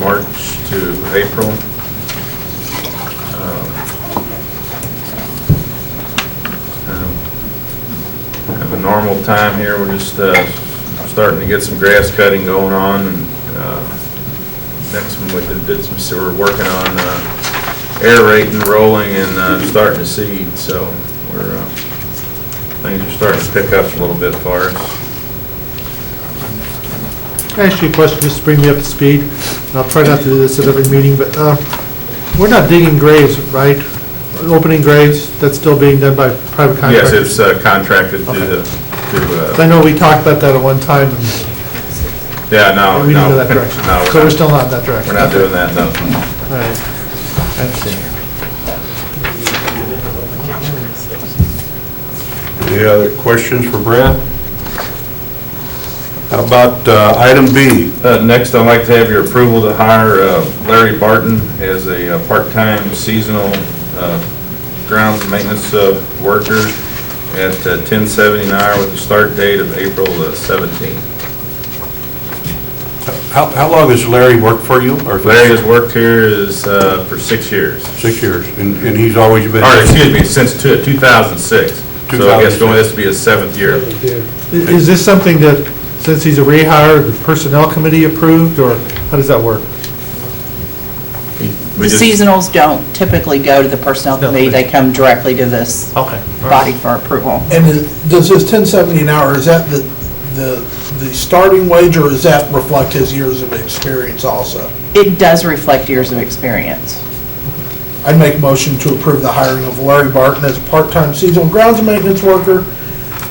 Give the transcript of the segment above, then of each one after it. March to April. Um, Have a normal time here, we're just uh, starting to get some grass cutting going on. and, uh, Next one, we did- did some, so we're working on uh, aerating, rolling, and uh, starting to seed, so we're, uh, things are starting to pick up a little bit for us. I ask you a question, just to bring me up to speed? and I'll try not to do this at every meeting, but uh, we're not digging graves, right? Opening graves, that's still being done by private Yes, contractors? it's uh, contracted to, Okay. the- to, 'Cause I uh, know we talked about that at one time, and yeah, Oh, no, no. we didn't go that direction. No, So we're still not in that direction? We're not doing that, no. All right. I understand. Any other questions for Brad? How about uh, item B? Uh, Next, I'd like to have your approval to hire uh, Larry Barton as a uh, part-time seasonal uh, grounds maintenance uh, worker at uh, 1070 an hour with a start date of April uh, the 17th. How how long has Larry worked for you? Or Larry has worked here is, uh, for six years, Six years, and and he's always been... or excuse me, since two- 2006. So I guess 2006. going, this will be his seventh year. I- Is this something that, since he's a rehire, the personnel committee approved, or how does that work? We The just- seasonals don't typically go to the personnel No, committee, they- they come directly to this Okay. body for approval. And is- does this ten seventy an hour, is that the, the, the starting wage, or does that reflect his years of experience also? It does reflect years of experience. I'd make a motion to approve the hiring of Larry Barton as a part-time seasonal grounds maintenance worker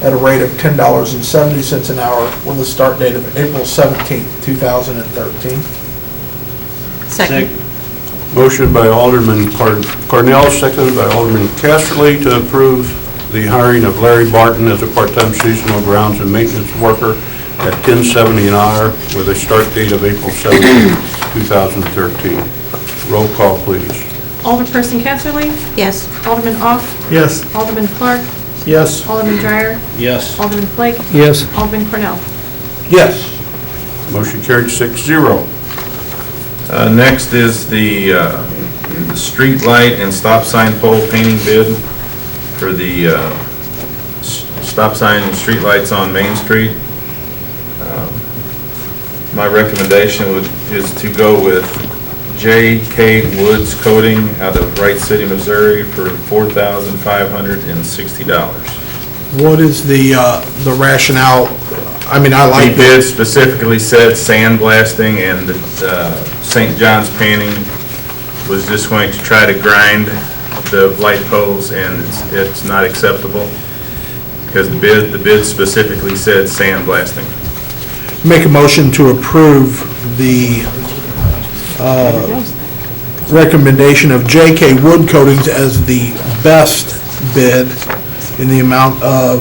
at a rate of ten dollars and seventy cents an hour with a start date of April seventeenth, two thousand and thirteen. Second. Motion by Alderman Car- Cornell, seconded by Alderman Casterly to approve the hiring of Larry Barton as a part-time seasonal grounds and maintenance worker at 1070 an hour with a start date of April 17, 2013. Roll call, please. Alderperson Casterly? Yes. Alderman Ock? Yes. Alderman Clark? Yes. Alderman Dreyer? Yes. Alderman Flake? Yes. Alderman Cornell? Yes. Motion carried six zero. Uh, Next is the uh, the street light and stop sign pole painting bid for the uh, s- stop sign and street lights on Main Street. Um, My recommendation would, is to go with J.K. Woods Coating out of Wright City, Missouri for $4,560. What is the, uh, the rationale? I mean, I The bid specifically said sandblasting and uh, St. John's painting was just going to try to grind the light poles, and it's- it's not acceptable, because the bid, the bid specifically said sandblasting. Make a motion to approve the uh, recommendation of JK Wood Coatings as the best bid in the amount of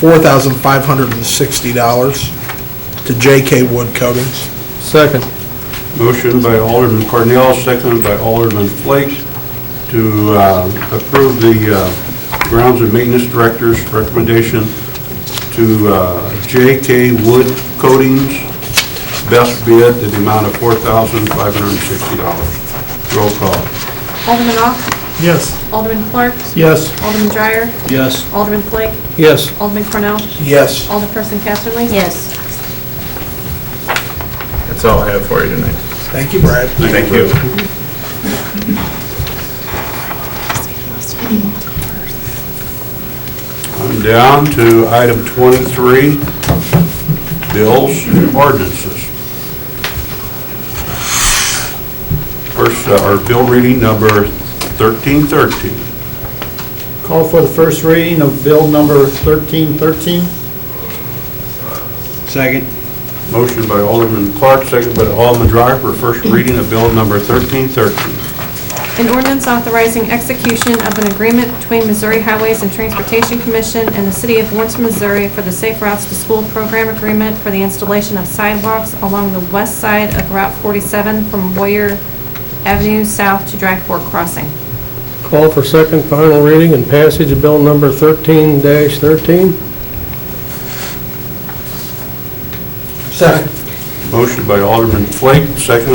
$4,560 to JK Wood Coatings. Second. Motion by Alderman Cornell, seconded by Alderman Flake to uh, approve the uh, grounds and maintenance director's recommendation to uh, J.K. Wood Coatings, best bid at the amount of $4,560. Roll call. Alderman Ock? Yes. Alderman Clark? Yes. Alderman Dreyer? Yes. Alderman Flake? Yes. Alderman Cornell? Yes. Alderperson Casterly? Yes. That's all I have for you tonight. Thank you, Brad. Thank you. I'm down to item 23, bills and ordinances. First, uh, our bill reading number 1313. Call for the first reading of bill number 1313. Second. Motion by Alderman Clark, second by Alderman Dreyer for first reading of bill number 1313. An ordinance authorizing execution of an agreement between Missouri Highways and Transportation Commission and the City of Lawrence, Missouri for the Safe Routes to School Program Agreement for the installation of sidewalks along the west side of Route 47 from Boyer Avenue South to Drag Fork Crossing. Call for second, final reading and passage of bill number 13-13. Second. Motion by Alderman Flake, seconded